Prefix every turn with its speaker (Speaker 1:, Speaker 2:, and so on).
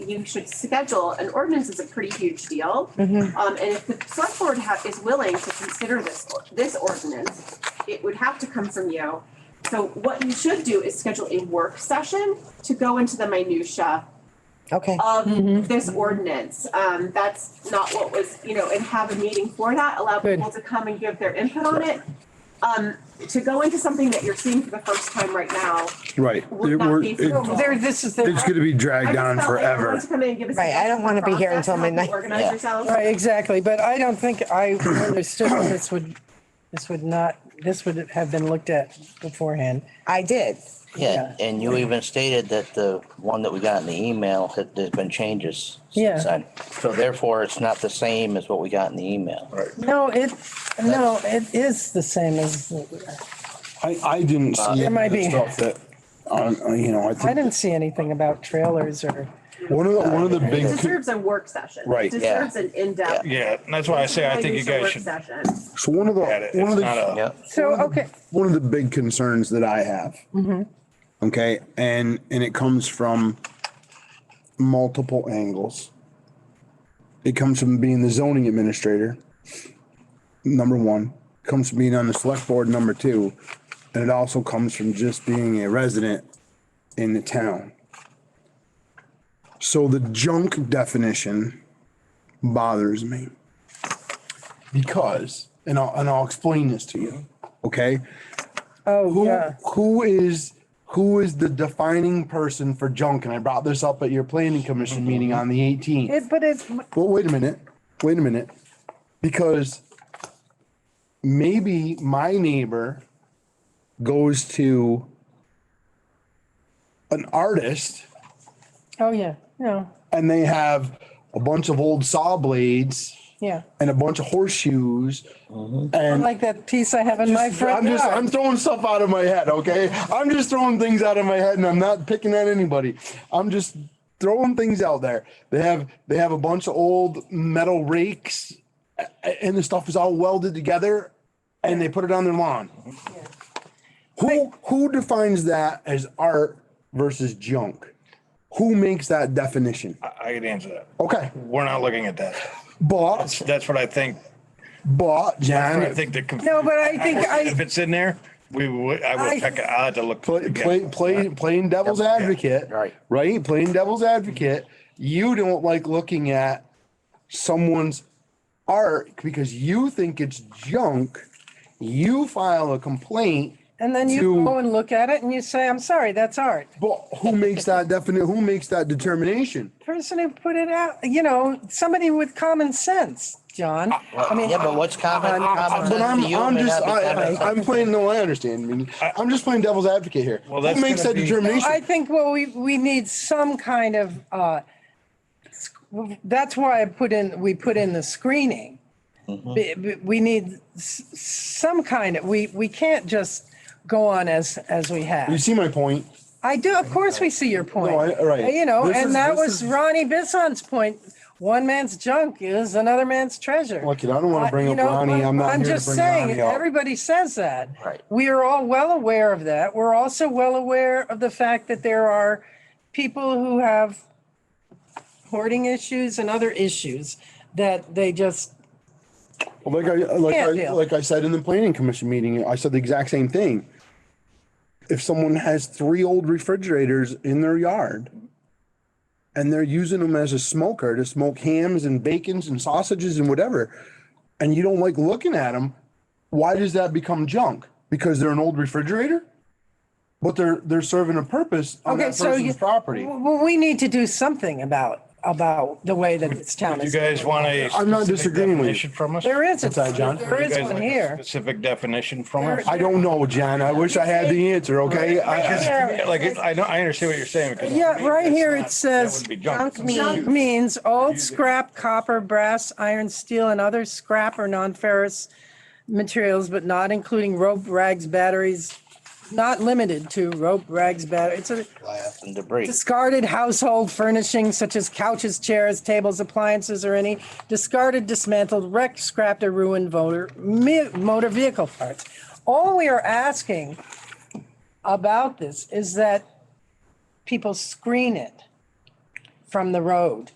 Speaker 1: you should schedule, an ordinance is a pretty huge deal.
Speaker 2: Mhm.
Speaker 1: Um, and if the select board ha- is willing to consider this, or- this ordinance, it would have to come from you. So what you should do is schedule a work session to go into the minutia
Speaker 2: Okay,
Speaker 1: of this ordinance. Um, that's not what was, you know, and have a meeting for that, allow
Speaker 3: Good.
Speaker 1: people to come and give their input on it. Um, to go into something that you're seeing for the first time right now
Speaker 4: Right.
Speaker 1: would
Speaker 4: It-
Speaker 1: not
Speaker 4: we're-
Speaker 1: be.
Speaker 4: it-
Speaker 1: suitable.
Speaker 3: There, this is
Speaker 4: It's
Speaker 3: the,
Speaker 4: gonna be
Speaker 1: I
Speaker 4: dragged
Speaker 1: just
Speaker 4: on
Speaker 1: felt like everyone
Speaker 4: forever.
Speaker 1: to come in and give us
Speaker 2: Right, I don't wanna be here
Speaker 1: process,
Speaker 2: until
Speaker 1: help you
Speaker 2: midnight.
Speaker 1: Organize
Speaker 2: Yeah.
Speaker 1: yourselves.
Speaker 3: right, exactly, but I don't think I understood that this would, this would not, this would have been looked at beforehand.
Speaker 2: I did.
Speaker 3: Yeah.
Speaker 5: Yeah, and you even stated that the one that we got in the email had, there's been changes. since
Speaker 3: Yeah.
Speaker 5: then. So therefore, it's not the same as what we got in the email. Right.
Speaker 3: No, it, no, it is the same as,
Speaker 4: I, I didn't see.
Speaker 3: There might be.
Speaker 4: the Stuff that, on, you know, I
Speaker 3: I
Speaker 4: think,
Speaker 3: didn't see anything about trailers or,
Speaker 4: one of the, one of the
Speaker 1: It
Speaker 4: big,
Speaker 1: deserves a work session.
Speaker 4: Right.
Speaker 1: It deserves an in-depth.
Speaker 6: Yeah, and that's why I say I think you
Speaker 1: Use the
Speaker 6: guys
Speaker 1: work
Speaker 6: should.
Speaker 1: session.
Speaker 4: so one of the,
Speaker 6: Had it.
Speaker 4: one of
Speaker 6: It's
Speaker 4: the,
Speaker 6: not
Speaker 5: Yeah,
Speaker 3: so, okay,
Speaker 4: one of the big concerns that I have. Okay, and, and it comes from multiple angles. It comes from being the zoning administrator, number one, comes from being on the select board, number two. And it also comes from just being a resident in the town. So the junk definition bothers me. Because, and I'll, and I'll explain this to you, okay?
Speaker 3: oh,
Speaker 4: Who
Speaker 3: yeah.
Speaker 4: who is who is the defining person for junk? And I brought this up at your planning commission meeting on the 18th.
Speaker 3: Mm-hmm. It, but it,
Speaker 4: Well, wait a minute, wait a minute, because maybe my neighbor goes to an artist
Speaker 3: oh, yeah, no,
Speaker 4: and they have a bunch of old saw blades
Speaker 3: yeah.
Speaker 4: and a bunch of horseshoes and
Speaker 3: Like that piece I have in my
Speaker 4: I'm
Speaker 3: front
Speaker 4: just I'm
Speaker 3: yard.
Speaker 4: throwing stuff out of my head, okay? I'm just throwing things out of my head and I'm not picking at anybody. I'm just throwing things out there. They have they have a bunch of old metal rakes a- a- and the stuff is all welded together and they put it on their lawn. Who who defines that as art versus junk? Who makes that definition?
Speaker 6: I I could answer that.
Speaker 4: Okay.
Speaker 6: We're not looking at that.
Speaker 4: But
Speaker 6: That's- That's what I think.
Speaker 4: but John
Speaker 6: I think the. conf-
Speaker 3: No, but I think I-
Speaker 6: If it's in there, we would, I
Speaker 3: I-
Speaker 6: would check it. I'll have to look.
Speaker 4: play,
Speaker 6: again.
Speaker 4: play, play, playing devil's
Speaker 6: Yep. Yeah.
Speaker 4: advocate,
Speaker 5: Right.
Speaker 4: Right, playing devil's advocate. You don't like looking at someone's art because you think it's junk. You file a complaint,
Speaker 3: And then you
Speaker 4: to-
Speaker 3: go and look at it and you say, I'm sorry, that's art.
Speaker 4: but who makes that definite? Who makes that determination?
Speaker 3: person who put it out, you know, somebody with common sense, John. I mean,
Speaker 5: yeah, but what's common,
Speaker 4: But
Speaker 5: common sense
Speaker 4: I'm,
Speaker 5: to you
Speaker 4: I'm
Speaker 5: may
Speaker 4: just,
Speaker 5: not be
Speaker 4: I,
Speaker 5: common
Speaker 4: I,
Speaker 5: sense.
Speaker 4: I'm playing. No, I understand. I mean, I'm just playing devil's advocate here.
Speaker 6: Well,
Speaker 4: who
Speaker 6: that's
Speaker 4: makes
Speaker 6: gonna
Speaker 4: that
Speaker 6: be-
Speaker 4: determination?
Speaker 3: I think, well, we, we need some kind of, uh, sc- that's why I put in, we put in the screening. Be- be- We need s- some kind of, we, we can't just go on as, as we
Speaker 4: you
Speaker 3: have.
Speaker 4: see my point.
Speaker 3: I do, of course, we see your point. Uh,
Speaker 4: No, I- all right.
Speaker 3: You know,
Speaker 4: This is-
Speaker 3: and that
Speaker 4: this
Speaker 3: was
Speaker 4: is-
Speaker 3: Ronnie Bisson's point. One man's junk is another man's treasure.
Speaker 4: Look, I don't want to bring
Speaker 3: I-
Speaker 4: up
Speaker 3: you know,
Speaker 4: Ronnie. I'm not here to
Speaker 3: just
Speaker 4: bring
Speaker 3: saying,
Speaker 4: Ronnie up.
Speaker 3: Everybody says that.
Speaker 5: Right.
Speaker 3: We are all well aware of that. We're also well aware of the fact that there are people who have hoarding issues and other issues that they just,
Speaker 4: Like I, like
Speaker 3: Can't
Speaker 4: I,
Speaker 3: do.
Speaker 4: like I said in the planning commission meeting, I said the exact same thing. If someone has three old refrigerators in their yard and they're using them as a smoker to smoke hams and bacons and sausages and whatever, and you don't like looking at them, why does that become junk? Because they're an old refrigerator? But they're, they're serving a purpose on
Speaker 3: okay,
Speaker 4: that
Speaker 3: so you. Oh,
Speaker 4: person's property.
Speaker 3: Well, we need to do something about, about the way that this town
Speaker 6: You
Speaker 3: is.
Speaker 6: guys want a.
Speaker 4: I'm not
Speaker 6: specific
Speaker 4: disagreeing with you.
Speaker 6: definition From us?
Speaker 3: There is, a-
Speaker 4: that, John?
Speaker 3: there
Speaker 6: You
Speaker 3: is
Speaker 6: guys
Speaker 3: one
Speaker 6: like a
Speaker 3: here.
Speaker 6: Specific definition from us?
Speaker 4: I don't know, John. I wish I had the answer, okay? I- I-
Speaker 3: Yeah.
Speaker 6: Like, it's- I know, I understand what you're saying. because to
Speaker 3: Yeah,
Speaker 6: me,
Speaker 3: right
Speaker 6: that's
Speaker 3: here
Speaker 6: not-
Speaker 3: it
Speaker 6: that
Speaker 3: says,
Speaker 6: would be
Speaker 3: junk
Speaker 6: It's not
Speaker 3: mean-
Speaker 6: used.
Speaker 3: means old scrap, copper, brass, iron, steel, and other scrap or non-ferrous materials, but not including rope, rags, batteries, not limited to rope, rags, batteries. It's a
Speaker 5: Glass and debris.
Speaker 3: discarded household furnishings such as couches, chairs, tables, appliances, or any discarded, dismantled, wrecked, scrapped, or ruined motor, mi- motor vehicle parts. All we are asking about this is that people screen it from the road.